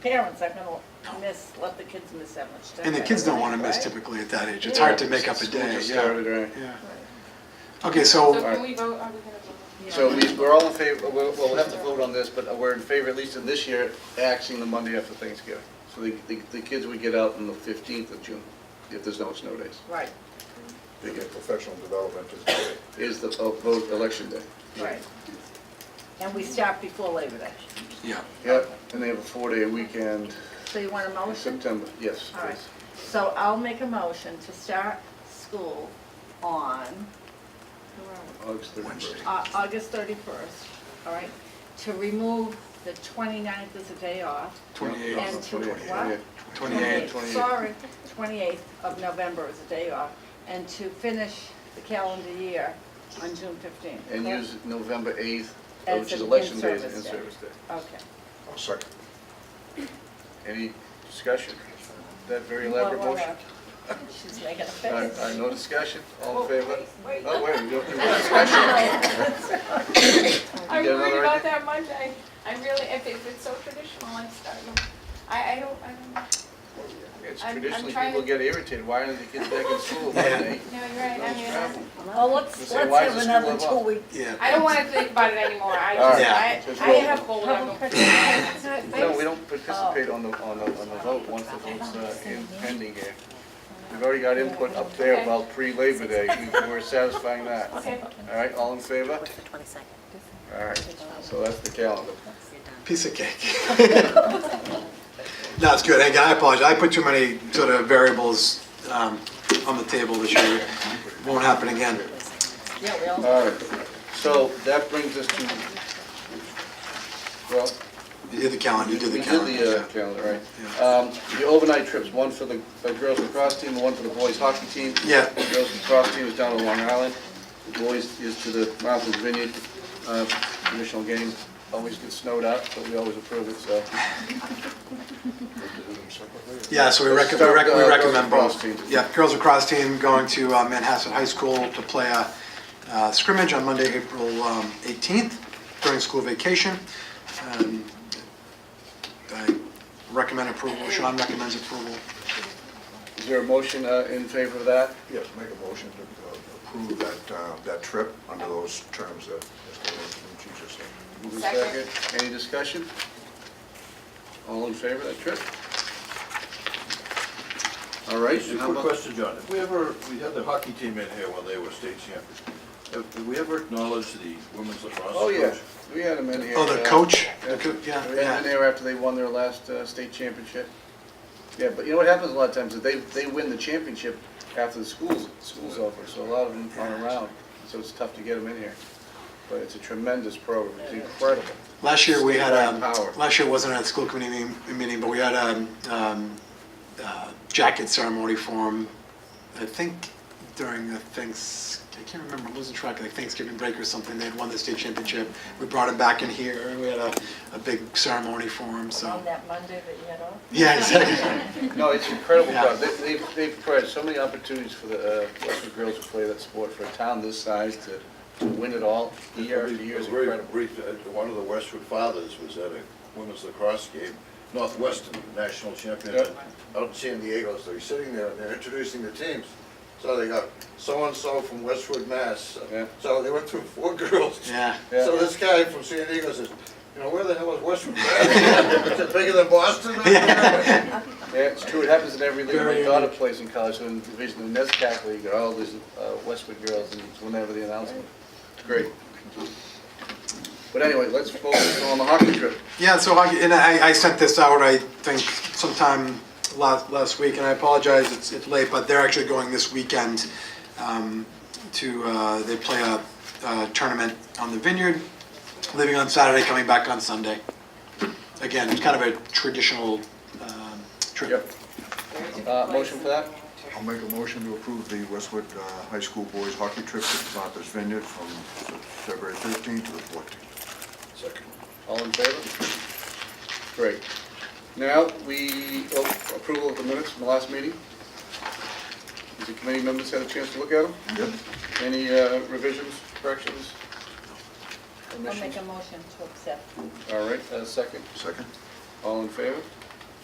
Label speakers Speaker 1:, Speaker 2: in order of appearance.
Speaker 1: parents are gonna miss, let the kids miss that much time.
Speaker 2: And the kids don't want to miss
Speaker 1: right?
Speaker 2: typically at that age. It's hard to make up a
Speaker 3: School
Speaker 2: day.
Speaker 3: just
Speaker 2: Yeah.
Speaker 3: started, right?
Speaker 2: Yeah.
Speaker 1: Right.
Speaker 2: Okay,
Speaker 4: So
Speaker 2: so,
Speaker 4: can we vote, are we gonna vote?
Speaker 1: Yeah.
Speaker 3: So we- we're all in favor, we'll we'll have to vote on this, but we're in favor, at least in this year, axing the Monday after Thanksgiving. So the- the the kids would get out on the 15th of June, if there's no snow days,
Speaker 1: Right,
Speaker 5: They get professional development as well.
Speaker 3: is the uh, vote election day.
Speaker 1: right. And we start before Labor Day.
Speaker 2: yeah.
Speaker 3: Yep, and they have a four-day weekend
Speaker 1: So you want a
Speaker 3: in
Speaker 1: motion?
Speaker 3: September, yes,
Speaker 1: All right.
Speaker 3: please.
Speaker 1: So I'll make a motion to start school on where are we?
Speaker 3: August 31st.
Speaker 1: Au- August 31st, all right? To remove the 29th as a day off.
Speaker 2: 28,
Speaker 1: And to what?
Speaker 2: 28.
Speaker 3: 28.
Speaker 1: Sorry, 28th of November is a day off, and to finish the calendar year on June 15th.
Speaker 3: And
Speaker 1: correct?
Speaker 3: use November 8th,
Speaker 1: As
Speaker 3: which is
Speaker 1: an
Speaker 3: election day, as an
Speaker 1: in-service day.
Speaker 3: in-service day.
Speaker 1: Okay.
Speaker 5: I'll second.
Speaker 3: Any discussion? That very
Speaker 1: Well,
Speaker 3: elaborate
Speaker 1: well,
Speaker 3: motion?
Speaker 1: uh, She's making a
Speaker 3: All right,
Speaker 1: face.
Speaker 3: all right, no discussion, all in favor?
Speaker 4: Wait,
Speaker 3: Oh, wait, we don't do discussion?
Speaker 4: I'm
Speaker 3: You got
Speaker 4: worried
Speaker 3: another
Speaker 4: about
Speaker 3: idea?
Speaker 4: that Monday. I really, if it- if it's so traditional, I'm starting, I, I don't, I don't,
Speaker 3: It's
Speaker 4: I'm- I'm
Speaker 3: traditionally,
Speaker 4: trying
Speaker 3: people
Speaker 4: to-
Speaker 3: get irritated, why aren't the kids back in school by then?
Speaker 4: no, you're right, I mean, I-
Speaker 1: Well, let's,
Speaker 3: Say,
Speaker 1: let's
Speaker 3: why
Speaker 1: have
Speaker 3: is the
Speaker 1: another two
Speaker 3: school
Speaker 1: weeks.
Speaker 2: Yeah.
Speaker 4: I don't wanna think about it anymore. I
Speaker 3: All
Speaker 4: just,
Speaker 2: right.
Speaker 4: I,
Speaker 3: Just
Speaker 4: I
Speaker 3: roll.
Speaker 4: have gold, I don't.
Speaker 3: No, we don't participate on the, on the, on the vote, once the vote's uh, in- pending here. We've already got input up there about pre-Labor Day, We- we're satisfying that. All
Speaker 4: Okay.
Speaker 3: right, all in favor?
Speaker 6: Twenty-second,
Speaker 3: All right, so that's the calendar.
Speaker 6: you're done.
Speaker 2: Piece of cake. No, it's good. Again, I apologize. I put too many sort of variables um, on the table this year. Won't happen again.
Speaker 1: Yeah, we all,
Speaker 3: All right, so that brings us to, well,
Speaker 2: You did the calendar, you did the calendar.
Speaker 3: We did the uh,
Speaker 2: yeah.
Speaker 3: calendar, right. Um, The overnight trips, one for the uh, girls lacrosse team, one for the boys hockey team.
Speaker 2: Yeah.
Speaker 3: The girls lacrosse team is down on Long Island. The boys is to the Martha's Vineyard. Uh, Traditional game, always gets snowed out, but we always approve it, so.
Speaker 5: We have to do them separately.
Speaker 2: Yeah, so we rec- we
Speaker 3: Start,
Speaker 2: rec-
Speaker 3: uh,
Speaker 2: we
Speaker 3: girls
Speaker 2: recommend
Speaker 3: lacrosse
Speaker 2: both.
Speaker 3: team.
Speaker 2: Yeah, girls lacrosse team going to uh, Manhasset High School to play a uh, scrimmage on Monday, April um, 18th during school vacation. Um, I recommend approval, Sean recommends approval.
Speaker 3: Is there a motion uh, in favor of that?
Speaker 5: Yes, make a motion to uh, approve that, uh, that trip under those terms that Mr. Lucci just said.
Speaker 3: Move in
Speaker 4: Second.
Speaker 3: Any discussion? All in favor of that trip? All right.
Speaker 7: Just
Speaker 3: and
Speaker 7: a
Speaker 3: how
Speaker 7: quick
Speaker 3: about-
Speaker 7: question, John. If we ever, we had the hockey team in here when they were state champions. Have have we ever acknowledged the women's lacrosse coach?
Speaker 3: Oh, yeah, we had them in here.
Speaker 2: Oh, the
Speaker 3: uh,
Speaker 2: coach?
Speaker 3: Yeah,
Speaker 2: The co- Yeah,
Speaker 3: They were in
Speaker 2: yeah.
Speaker 3: there after they won their last uh, state championship. Yeah, but you know what happens a lot of times, is they, they win the championship after the school's, school's over, so a lot of them aren't around, so it's tough to get them in here. But it's a tremendous program, it's incredible.
Speaker 2: Last year, we had, um,
Speaker 3: Statewide power.
Speaker 2: last year wasn't at a school committee meeting- meeting, but we had a um, uh, jacket ceremony for 'em, I think during the thanks, I can't remember, I'm losing track, like Thanksgiving break or something, they had won the state championship. We brought them back in here, and we had a, a big ceremony for them, so.
Speaker 1: on that Monday that you had off.
Speaker 2: Yeah, exactly.
Speaker 3: No, it's incredible,
Speaker 2: Yeah.
Speaker 3: program. They- they've, they've provided so many opportunities for the uh, Westwood girls to play that sport, for a town this size to, to win it all, year after year is
Speaker 7: Very
Speaker 3: incredible.
Speaker 7: brief, uh, one of the Westwood fathers was at a women's lacrosse game, Northwestern National Champion, out in San Diego, so he's sitting there and they're introducing the teams. So they got so-and-so from Westwood, Mass.
Speaker 3: Yeah.
Speaker 7: So they went through four girls.
Speaker 2: Yeah.
Speaker 3: Yeah.
Speaker 7: So this guy from San Diego says, you know, where the hell is Westwood, Mass? Is it bigger than Boston?
Speaker 3: Yeah, it's true, it happens in every league, my
Speaker 2: Very
Speaker 3: daughter plays in college, so in Division, the NESCAC League, there are all these uh, Westwood girls, and it's whenever the announcement, It's great. But anyway, let's focus on the hockey trip.
Speaker 2: Yeah, so I, and I, I sent this out, I think sometime last, last week, and I apologize, it's, it's late, but they're actually going this weekend um, to, uh, they play a, a tournament on the Vineyard, leaving on Saturday, coming back on Sunday. Again, it's kind of a traditional um,
Speaker 3: Yep.
Speaker 2: trip.
Speaker 3: Uh, Motion for that?
Speaker 5: I'll make a motion to approve the Westwood uh, High School boys hockey trip to Martha's Vineyard from February 13th to the 14th.
Speaker 7: Second.
Speaker 3: All in favor? Great. Now, we, oh, approval of the minutes from the last meeting. Has the committee members had a chance to look at them?
Speaker 5: Yep.
Speaker 3: Any uh, revisions, corrections?
Speaker 1: I'll make
Speaker 3: omissions?
Speaker 1: a motion to accept.
Speaker 3: All right, uh, second.
Speaker 5: Second?
Speaker 3: All in favor?